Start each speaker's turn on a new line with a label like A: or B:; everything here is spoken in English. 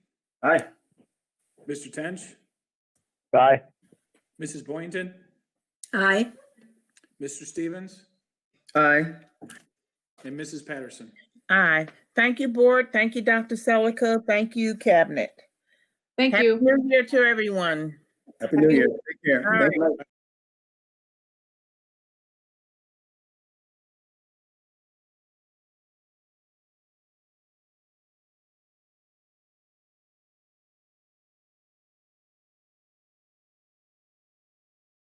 A: Aye.
B: Mr. Tench,
C: Aye.
B: Mrs. Boynton,
D: Aye.
B: Mr. Stevens,
A: Aye.
B: and Mrs. Patterson.
E: Aye. Thank you, board. Thank you, Dr. Celica. Thank you, cabinet.
F: Thank
E: Happy
F: you.
E: New Year to everyone.
A: Happy New Year. Take
E: All
A: care.
E: right.